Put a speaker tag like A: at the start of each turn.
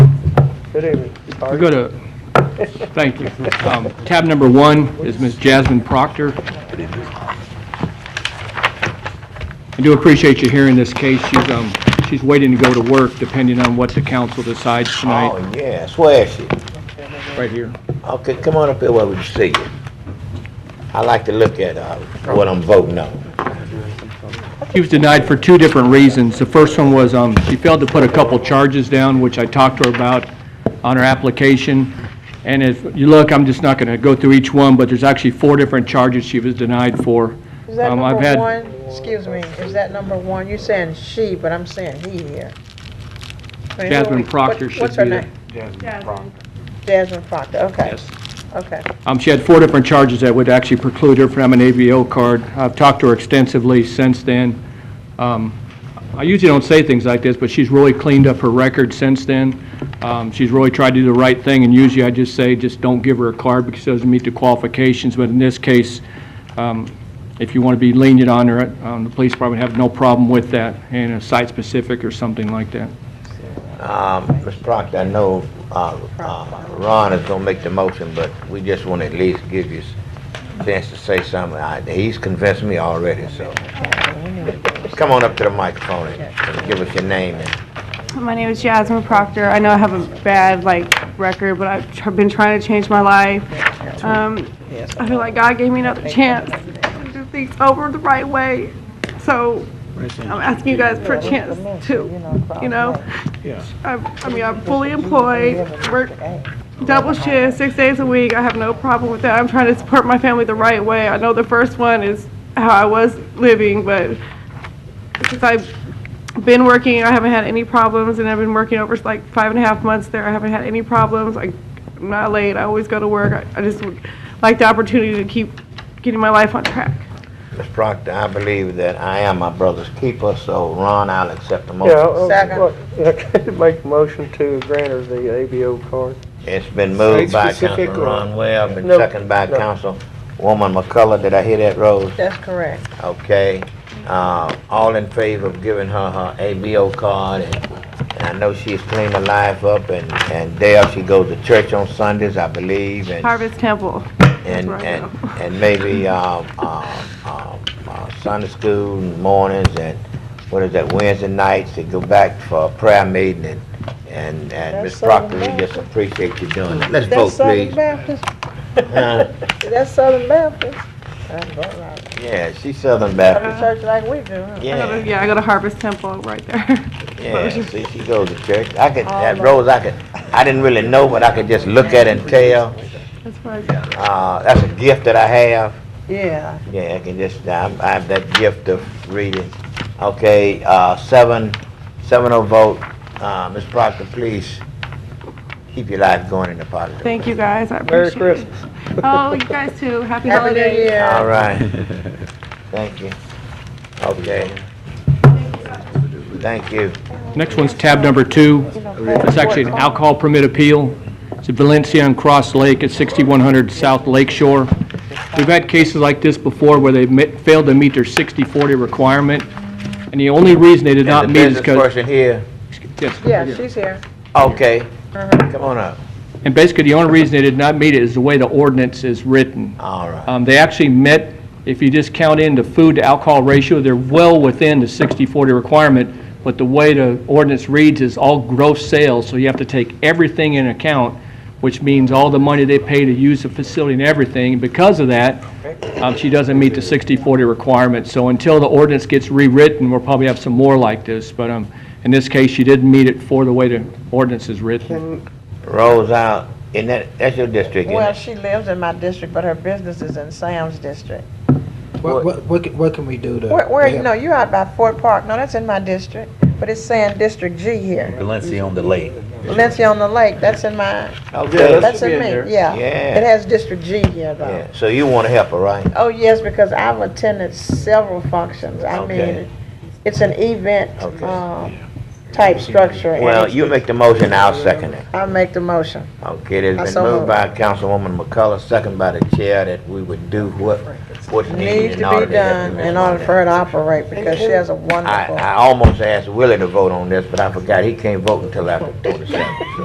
A: Good evening.
B: We go to, thank you. Um, Tab number one is Ms. Jasmine Proctor. I do appreciate you hearing this case. She's, um, she's waiting to go to work depending on what the council decides tonight,
C: Oh, yes, where is she?
B: Oh, right here.
C: Okay, come on up here where we can see you. I like to look at, uh, what I'm voting on.
B: She was denied for two different reasons. The first one was, um, she failed to put a couple charges down, which I talked to her about on her application. And if you look, I'm just not gonna go through each one, but there's actually four different charges she was denied for.
D: Is that
B: Um, I've
D: number
B: had-
D: one? Excuse me, is that number one? You're saying she, but I'm saying he here. I mean, who are
B: Jasmine
D: we-
B: Proctor
D: what-
B: should
D: What's her
B: be the-
D: name? Jasmine Proctor, okay, okay.
B: Um, She had four different charges that would actually preclude her from an ABO card. I've talked to her extensively since then. Um, I usually don't say things like this, but she's really cleaned up her record since then. Um, She's really tried to do the right thing, and usually I just say, just don't give her a card because she doesn't meet the qualifications. But in this case, um, if you want to be lenient on her, um, the police probably have no problem with that, and a site-specific or something like that.
C: Um, Ms. Proctor, I know, uh, uh, Ron is gonna make the motion, but we just wanna at least give you a chance to say something. I- He's convinced me already, so. Come on up to the microphone and give us your name and
E: My name is Jasmine Proctor. I know I have a bad, like, record, but I've tr- been trying to change my life. Um, I feel like God gave me another chance to do things over the right way. So I'm asking you guys for a chance to, you know? I'm- I mean, I'm fully employed, work double shift, six days a week. I have no problem with that. I'm trying to support my family the right way. I know the first one is how I was living, but since I've been working, I haven't had any problems, and I've been working over like five and a half months there. I haven't had any problems. I, I'm not late. I always go to work. I, I just would like the opportunity to keep getting my life on track.
C: Ms. Proctor, I believe that I am my brother's keeper, so Ron, I'll accept the
A: Yeah,
C: motion.
A: I'll-
D: Second.
A: look, I make a motion to grant her the ABO card.
C: It's been moved by
F: Site-specific
C: Councilman Ron
F: or-
C: Webb and
A: No,
C: seconded by
A: no.
C: Councilwoman McCullough. Did I hear that, Rose?
D: That's correct.
C: Okay. Uh, all in favor of giving her her ABO card and, and I know she's cleaned her life up and, and there she goes to church on Sundays, I believe, and,
E: Harvest Temple.
C: and,
E: where I
C: and, and maybe, uh, uh, uh, uh, Sunday school mornings and what is that, Wednesday nights to go back for a prayer meeting and, and, and Ms.
D: That's Southern
C: Proctor, we just
D: Baptist.
C: appreciate you doing it. Let's vote,
D: That's Southern
C: please.
D: Baptist,
C: Huh?
D: that's Southern Baptist. That's all right.
C: Yeah, she's Southern
D: That's
E: Uh-huh.
C: Baptist.
D: a church like we do, huh?
E: I go to-
C: Yeah,
E: yeah, I go to Harvest Temple right there.
C: yeah. See, she goes to church. I could, that Rose, I could, I didn't really know, but I could just look at and tell.
E: That's where I go.
C: Uh, that's a gift that I have.
D: Yeah,
C: Yeah, I can just, I, I have that gift of reading. Okay, uh, seven, seven oh vote. Uh, Ms. Proctor, please keep your life going in the positive.
E: Thank you guys. I
A: Merry
E: appreciate it.
A: Christmas.
E: Oh, you guys too. Happy,
D: happy new
E: holidays.
D: year.
C: All right. Thank you. Okay. Thank you.
B: Next one's tab number two. It's actually an alcohol permit appeal. It's at Valencia and Cross Lake at 6100 South Lake Shore. We've had cases like this before where they met- failed to meet their 60/40 requirement, and the only reason they did not
C: And
B: meet is
C: The
B: because...
C: business person here.
D: Yeah, she's here.
C: Okay.
D: Uh-huh.
C: Come on up.
B: And basically, the only reason they did not meet it is the way the ordinance is written.
C: All right.
B: Um, They actually met, if you just count in the food to alcohol ratio, they're well within the 60/40 requirement, but the way the ordinance reads is all gross sales, so you have to take everything in account, which means all the money they pay to use the facility and everything. Because of that, um, she doesn't meet the 60/40 requirement. So until the ordinance gets rewritten, we'll probably have some more like this. But um, in this case, she didn't meet it for the way the ordinance is written.
C: Rolls out, and that, that's your district, isn't
D: Well,
C: it?
D: she lives in my district, but her business is in Sam's district.
F: What, what, what can- what can we do to?
D: Where, where,
F: help?
D: no, you're out by Fort Park, no, that's in my district, but it's saying District G here.
G: Valencia on the lake.
D: Valencia on the Lake, that's in my,
C: Okay,
D: that's in me, yeah.
C: Yeah.
D: It has District G here though.
C: yeah, so you wanna help her, right?
D: Oh, yes, because I've attended several functions, I
C: Okay.
D: mean, it's an event,
C: Okay.
D: um, type structure. and
C: Well, you make the motion, I'll second it.
D: I make the motion,
C: Okay, it
D: I
C: has been
D: so
C: moved
D: moved.
C: by Councilwoman McCullough, second by the chair, that we would do what, what's needed
D: needs
C: in
D: to
C: order
D: be
C: to help
D: done
C: Ms.
D: in order
C: Martin.
D: for her to operate, because she has a
C: I,
D: wonderful.
C: I almost asked Willie to vote on this, but I forgot, he can't vote until after twenty-seven, so.